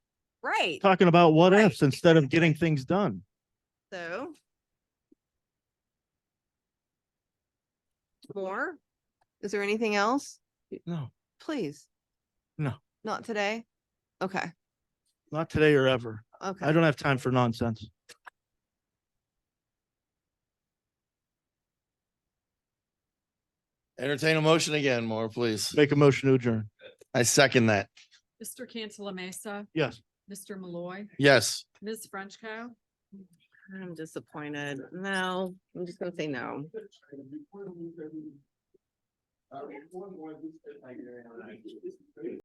Right, talking about what Right, ifs instead of getting things done. so. More? Is there anything else? No, Please. No. Not today? Okay, not today or ever. I okay. don't have time for nonsense. Entertain a motion again, more, please. Make a motion to adjourn. I second that. Mr. Cantala Mesa, Yes. Mr. Malloy, Yes. Ms. Frenchco. I'm disappointed. No, I'm just gonna say no.